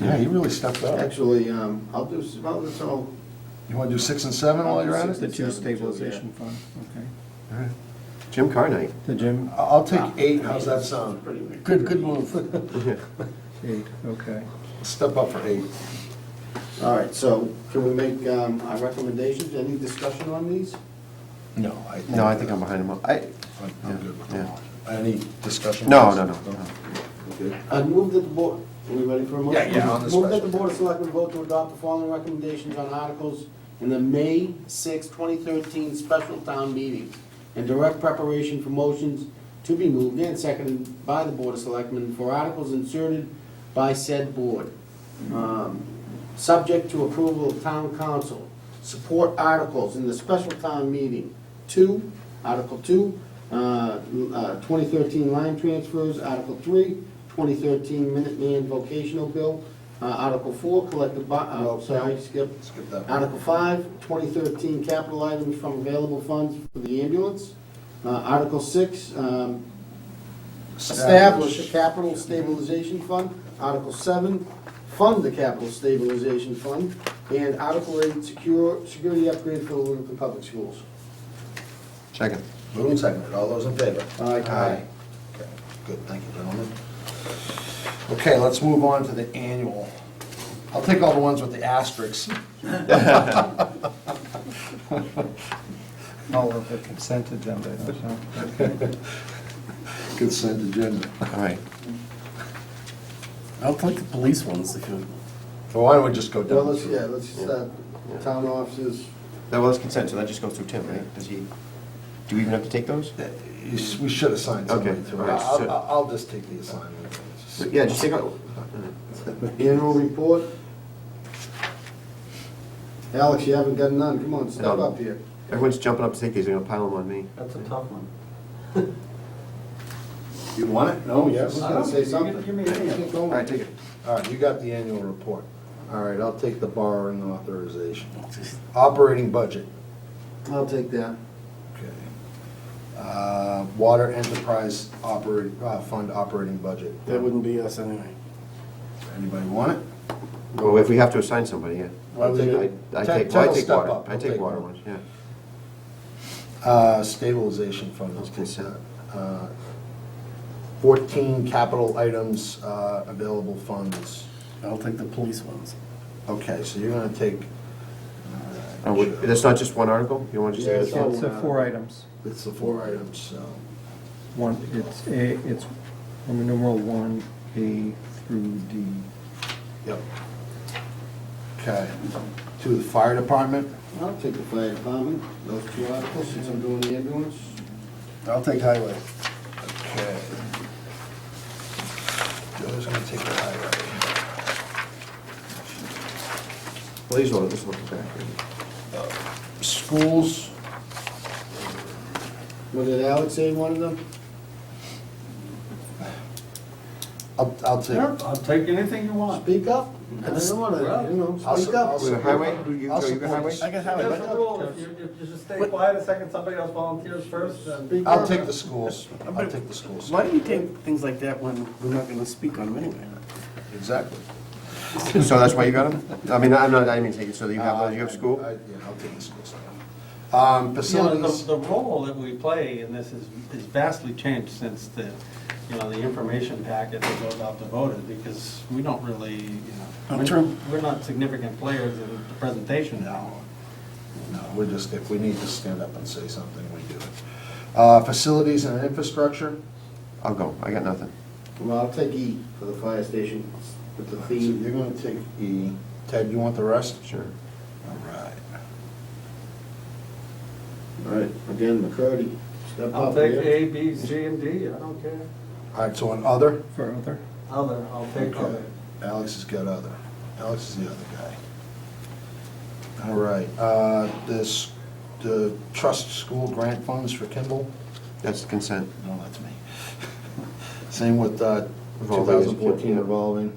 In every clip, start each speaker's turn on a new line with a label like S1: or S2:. S1: Yeah, you really stepped up.
S2: Actually, um, I'll do, s- well, it's all,
S1: You want to do six and seven while you're at
S2: Six
S1: it?
S3: The two
S2: Seven, two, yeah.
S3: stabilization fund, okay.
S1: All right.
S4: Jim Carnight.
S3: The gym,
S1: I- I'll take eight, how's that sound?
S2: Pretty good.
S1: Good, good move.
S3: eight, okay.
S1: Step up for eight.
S2: all right, so can we make um, our recommendations, any discussion on these?
S1: No, I.
S4: No, I think I'm behind him. Uh, I,
S1: I'm I'm good with
S4: Yeah.
S1: them all. Any discussion?
S4: no, no, no, no.
S2: I move that the board, are we ready for a motion?
S1: Yeah, yeah, on the
S2: Move that
S1: special.
S2: the board of selectmen vote to adopt the following recommendations on articles in the May 6, 2013 special town meeting and direct preparation for motions to be moved and seconded by the board of selectmen for articles inserted by said board. Um, Subject to approval of town council, support articles in the special town meeting. Two, Article Two, uh, uh, 2013 line transfers, Article Three, 2013 Minuteman vocational bill, uh, Article Four, collective, bo- uh, sorry, skip.
S1: Skip that.
S2: Article five, 2013 capital items from available funds for the ambulance. Uh, Article six, um, establish a capital stabilization fund. Article seven, fund the capital stabilization fund. And Article eight, secure, security upgrade for the Littleton Public Schools.
S4: Second.
S1: Moved and seconded, all those in favor?
S2: Aye.
S1: Okay, Good, thank you, gentlemen. Okay, let's move on to the annual. I'll take all the ones with the asterisks.
S3: All of the consent agenda, that's all.
S1: Consent agenda.
S4: All right.
S5: I don't like the police ones, if you,
S1: Well, why don't we just go down?
S2: Well, let's,
S1: through?
S2: yeah, let's start, town offices,
S4: That was consent, so that just goes through Tim, right? Does he, do we even have to take those?
S1: Yeah, you s- We should assign somebody
S4: Okay,
S1: to it.
S4: all right,
S1: I'll,
S4: so-
S1: I'll- I'll just take the assignment.
S4: Yeah, just take out.
S2: annual report. Alex, you haven't got none, come on, step
S4: No.
S2: up here.
S4: Everyone's jumping up to take these, they're gonna pile them on me.
S5: that's a tough one.
S1: You want it? No,
S2: I was gonna say something.
S4: All right, take it.
S1: All right, you got the annual report. All right, I'll take the borrowing authorization. Operating budget.
S2: I'll take that.
S1: Okay. Uh, Water enterprise operate, uh, fund operating budget.
S5: That wouldn't be us anyway.
S1: Anybody want it?
S4: Well, if we have to assign somebody, yeah.
S1: Why would you-
S4: I I
S1: Ted-
S4: take,
S1: Ted
S4: well, I
S1: will
S4: take
S1: step
S4: water.
S1: up.
S4: I
S1: He'll
S4: take
S1: take
S4: water
S1: one.
S4: ones, yeah.
S1: Uh, stabilization fund, let's put that. Uh, Fourteen capital items, uh, available funds.
S5: I'll take the police ones.
S1: Okay, so you're gonna take.
S4: Oh, wait, That's not just one article? You wanna just
S2: Yeah,
S4: take
S2: it's
S4: it?
S2: all-
S3: It's uh, four items.
S1: It's the four items, so.
S3: One, it's A, it's Roman numeral one, A through D.
S1: Yep. Okay, to the fire department.
S2: I'll take the fire department, those two articles, since I'm doing the ambulance.
S1: I'll take highway. Okay. Joe's gonna take the highway.
S4: Well, these will, this will come back.
S1: Schools,
S2: Was it Alex saying one of them?
S1: I'll, I'll take.
S5: I'll take anything you want.
S2: Speak up. I don't wanna, you know,
S1: I'll
S2: speak
S1: su-
S2: up.
S1: I'll
S4: Wait,
S1: su-
S4: highway? Do you-
S1: I'll
S4: do you go
S1: support-
S4: highway?
S1: I got highway,
S6: There's
S1: but
S6: a rule, if you, if you just stay quiet a second, somebody else volunteers first, then.
S1: I'll take the schools, I'll take the schools.
S5: Why do you take things like that when we're not gonna speak on them anyway?
S1: Exactly.
S4: So that's why you got them? I mean, I'm not, I didn't mean take it, so you have, those. Uh, you have school?
S1: I- Yeah, I'll take the schools. Um, facilities,
S7: The role that we play in this is is vastly changed since the, you know, the information packet that goes out to voters, because we don't really, you know.
S5: Not Uh, true.
S7: We're not significant players in the presentation now.
S1: no, we're just, if we need to stand up and say something, we do it. Uh, facilities and infrastructure,
S4: I'll go, I got nothing.
S2: Well, I'll take E for the fire station, with the
S1: So
S2: theme.
S1: you're gonna take E. Ted, you want the rest?
S4: Sure.
S1: All right.
S2: All right, again, McCurdy, step up.
S7: I'll take E.
S2: yeah.
S7: A, B, C, and D, I don't care.
S1: All right, so on other?
S3: For other,
S7: Other, I'll take
S1: Okay.
S7: other.
S1: Alex has got other. Alex is the other guy. All right, uh, this, the trust school grant funds for Kimball?
S4: That's the consent.
S1: No, that's me. Same with, uh, two
S4: Revolving.
S1: thousand fourteen revolving.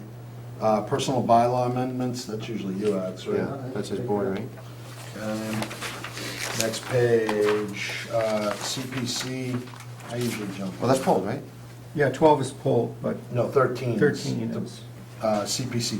S1: Uh, personal bylaw amendments, that's usually you, Alex,
S4: Yeah,
S1: right?
S4: that's his board, right?
S1: Um, Next page, uh, CPC, I usually jump.
S4: Well, that's pulled, right?
S3: yeah, twelve is pulled, but
S1: No, thirteen.
S3: thirteen is.
S1: Uh, CPC